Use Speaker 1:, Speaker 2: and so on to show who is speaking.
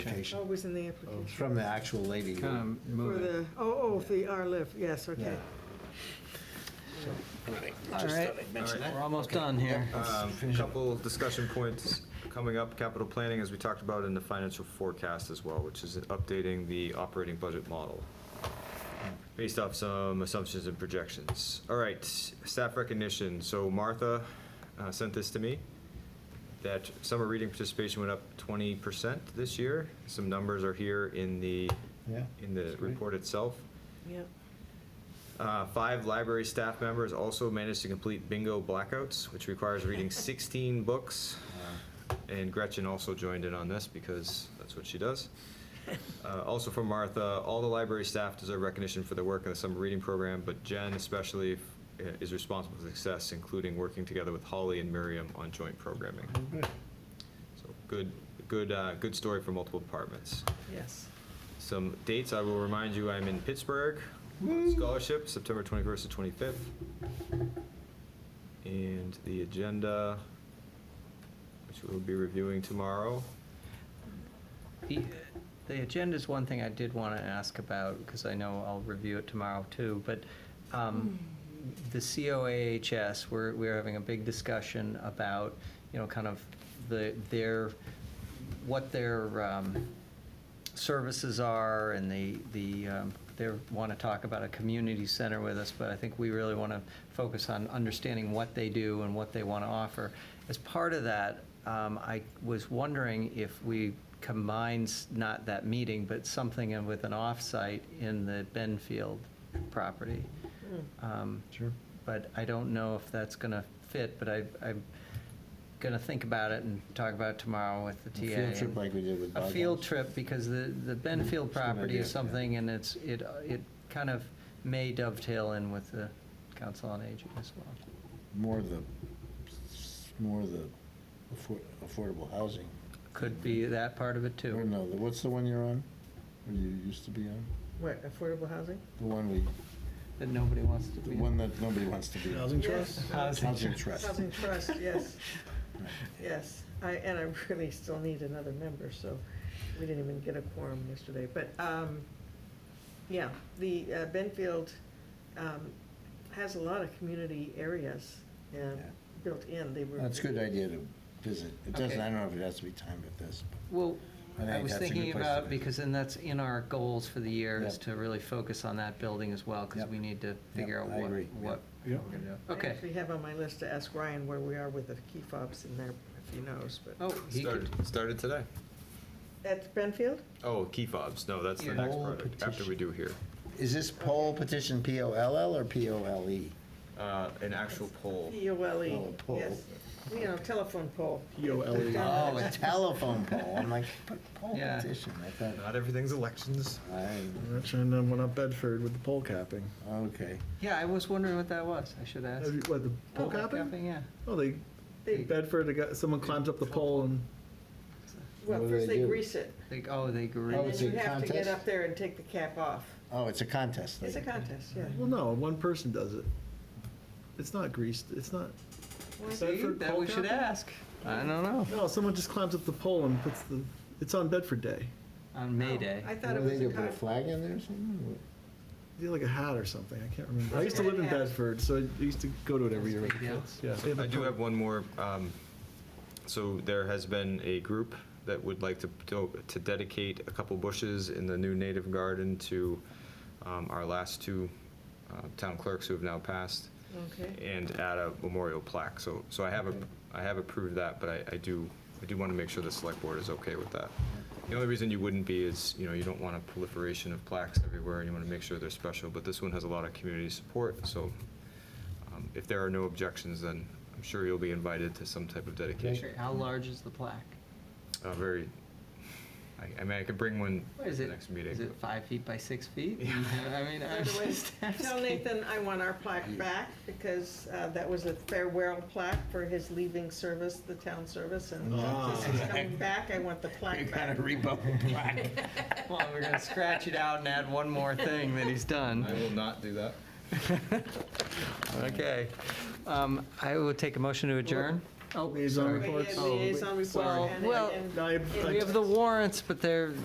Speaker 1: application.
Speaker 2: Always in the
Speaker 1: It's
Speaker 2: application.
Speaker 1: From the actual lady. who-
Speaker 3: Kind of
Speaker 2: For
Speaker 3: moving.
Speaker 2: the, oh, oh, the R-LIF, yes, okay.
Speaker 1: Yeah.
Speaker 4: All right,
Speaker 1: that.
Speaker 4: we're almost done here.
Speaker 5: Um, Couple discussion points coming up, capital planning, as we talked about in the financial forecast as well, which is updating the operating budget model based off some assumptions and projections. All right, staff recognition. So Martha uh, sent this to me, that summer reading participation went up 20% this year. Some numbers are here in the,
Speaker 1: Yeah,
Speaker 5: in the
Speaker 1: that's right.
Speaker 5: report itself.
Speaker 2: Yep.
Speaker 5: Uh, Five library staff members also managed to complete bingo blackouts, which requires reading 16 books. Uh, And Gretchen also joined in on this because that's what she does. Uh, Also from Martha, all the library staff deserve recognition for their work in the summer reading program, but Jen especially uh, is responsible for success, including working together with Holly and Miriam on joint programming.
Speaker 1: Good.
Speaker 5: So good, good, uh, good story for multiple departments.
Speaker 2: Yes.
Speaker 5: Some dates, I will remind you, I'm in Pittsburgh, on scholarship, September 21st to 25th. And the agenda, which we'll be reviewing tomorrow.
Speaker 4: The the agenda's one thing I did want to ask about, because I know I'll review it tomorrow too, but um, the COAHS, we're, we're having a big discussion about, you know, kind of the, their, what their um, services are, and the, the, um, they want to talk about a community center with us, but I think we really want to focus on understanding what they do and what they want to offer. As part of that, um, I was wondering if we combines not that meeting, but something in- with an offsite in the Benfield property. Um,
Speaker 1: Sure.
Speaker 4: But I don't know if that's going to fit, but I, I'm going to think about it and talk about it tomorrow with the TA.
Speaker 1: A field trip
Speaker 4: and-
Speaker 1: like we did with
Speaker 4: a field
Speaker 1: Bogdan's.
Speaker 4: trip, because the, the Benfield
Speaker 1: Mm-hmm. It's a good
Speaker 4: property
Speaker 1: idea,
Speaker 4: is
Speaker 1: yeah.
Speaker 4: something, and it's, it, it kind of may dovetail in with the Council on Aging as well.
Speaker 1: More the, more the affor- affordable housing.
Speaker 4: Could be that part of it,
Speaker 1: Or
Speaker 4: too.
Speaker 1: no, the- what's the one you're on? Or you used to be on?
Speaker 2: What, affordable housing?
Speaker 1: The one we,
Speaker 4: That nobody wants to
Speaker 1: the
Speaker 4: be. Uh,
Speaker 1: one that nobody wants to be on.
Speaker 2: Housing trust?
Speaker 1: Housing trust.
Speaker 2: Housing trust, yes, yes. I, and I really still need another member, so we didn't even get a quorum yesterday. But, um, yeah, the uh, Benfield, um, has a lot of community areas, uh,
Speaker 1: Yeah.
Speaker 2: built in. They were.
Speaker 1: That's a good idea to visit. It doesn't,
Speaker 4: Okay.
Speaker 1: I don't know if it has to be timed with this.
Speaker 4: Well,
Speaker 1: I
Speaker 4: I
Speaker 1: think
Speaker 4: was
Speaker 1: that's a good
Speaker 4: thinking
Speaker 1: place to
Speaker 4: about,
Speaker 1: be.
Speaker 4: because then that's in our goals for the year, is
Speaker 1: Yep.
Speaker 4: to really focus on that building as well, because
Speaker 1: Yep.
Speaker 4: we need to figure
Speaker 1: Yep,
Speaker 4: out
Speaker 1: I
Speaker 4: what,
Speaker 1: agree,
Speaker 4: what we're
Speaker 3: yeah.
Speaker 4: going to do.
Speaker 2: I
Speaker 4: Okay.
Speaker 2: actually have on my list to ask Ryan where we are with the key fobs in there, if he knows, but.
Speaker 4: Oh, he could,
Speaker 5: Started, started today.
Speaker 2: At Benfield?
Speaker 5: Oh, key fobs, no, that's the
Speaker 4: Yeah.
Speaker 5: next
Speaker 1: Poll
Speaker 5: project, after we
Speaker 1: petition.
Speaker 5: do here.
Speaker 1: Is this poll petition P-O-L-L or P-O-L-E?
Speaker 5: Uh, An actual poll.
Speaker 2: P O L E,
Speaker 1: Oh, poll.
Speaker 2: yes. You know, telephone pole.
Speaker 3: EOLE.
Speaker 1: Oh, a telephone poll. I'm like, but poll
Speaker 4: Yeah.
Speaker 1: petition, I thought,
Speaker 5: Not everything's elections.
Speaker 1: I,
Speaker 3: And then went up Bedford with the pole capping.
Speaker 1: okay.
Speaker 4: yeah, I was wondering what that was, I should ask.
Speaker 3: Have you- What, the pole
Speaker 4: Oh,
Speaker 3: capping?
Speaker 4: Yeah.
Speaker 3: Oh, they,
Speaker 2: They-
Speaker 3: Bedford, they got- someone climbs up the pole and,
Speaker 1: What
Speaker 2: Well,
Speaker 1: do
Speaker 2: first
Speaker 1: they
Speaker 2: they
Speaker 1: do?
Speaker 2: grease it,
Speaker 4: They, oh, they grew.
Speaker 1: Oh,
Speaker 2: and
Speaker 1: it's
Speaker 2: then
Speaker 1: a
Speaker 2: you have to get
Speaker 1: contest?
Speaker 2: up there and take the cap off.
Speaker 1: Oh, it's a contest thing.
Speaker 2: It's a contest, yeah.
Speaker 3: well, no, one person does it. It's not greased, it's not,
Speaker 2: Well,
Speaker 3: So- Bedford
Speaker 4: that
Speaker 3: pole
Speaker 4: we should
Speaker 3: capping?
Speaker 4: ask. I don't know.
Speaker 3: no, someone just climbs up the pole and puts the, it's on Bedford Day.
Speaker 4: On May Day.
Speaker 2: I
Speaker 1: What
Speaker 2: thought
Speaker 1: do
Speaker 2: it
Speaker 1: they
Speaker 2: was a
Speaker 1: do, put a
Speaker 2: contest.
Speaker 1: flag in there or something?
Speaker 3: They have like a hat or something, I can't remember.
Speaker 2: That's
Speaker 3: I used to
Speaker 2: what
Speaker 3: live in
Speaker 2: it has.
Speaker 3: Bedford, so I used to go to it every year with the
Speaker 4: Yeah.
Speaker 3: kids. Yeah, they
Speaker 5: I do
Speaker 3: pole.
Speaker 5: have one more. um, So there has been a group that would like to, to- to dedicate a couple bushes in the new native garden to um, our last two uh, town clerks who have now passed
Speaker 2: Okay,
Speaker 5: and add a memorial plaque. So, so I have, a- I have approved that, but I, I do, I do want to make sure the select board is okay with that. The only reason you wouldn't be is, you know, you don't want a proliferation of plaques everywhere and you want to make sure they're special, but this one has a lot of community support, so um, if there are no objections, then I'm sure you'll be invited to some type of dedication.
Speaker 4: How large is the plaque?
Speaker 5: Uh, very, I, I mean, I could bring one
Speaker 4: What
Speaker 5: to
Speaker 4: is
Speaker 5: the
Speaker 4: it?
Speaker 5: next meeting.
Speaker 4: Is it five feet by six feet? I mean,
Speaker 2: By
Speaker 4: I'm
Speaker 2: the way,
Speaker 4: just
Speaker 2: tell
Speaker 4: asking.
Speaker 2: Nathan I want our plaque back, because uh, that was a farewell plaque for his leaving service, the town service, and
Speaker 3: Ah.
Speaker 2: since he's coming back, I want the
Speaker 1: You
Speaker 2: plaque
Speaker 1: gotta
Speaker 2: back.
Speaker 1: rebuff the plaque.
Speaker 4: Well, we're gonna scratch it out and add one more thing that he's
Speaker 5: I
Speaker 4: done.
Speaker 5: will not do that.
Speaker 4: Okay. Um, I will take a motion to adjourn. Oh,
Speaker 3: Liaison
Speaker 4: sorry.
Speaker 3: reports.
Speaker 2: Liaison report
Speaker 4: Well,
Speaker 2: and-
Speaker 4: well,
Speaker 2: and-
Speaker 3: I-
Speaker 2: and-
Speaker 4: We have the warrants, but they're,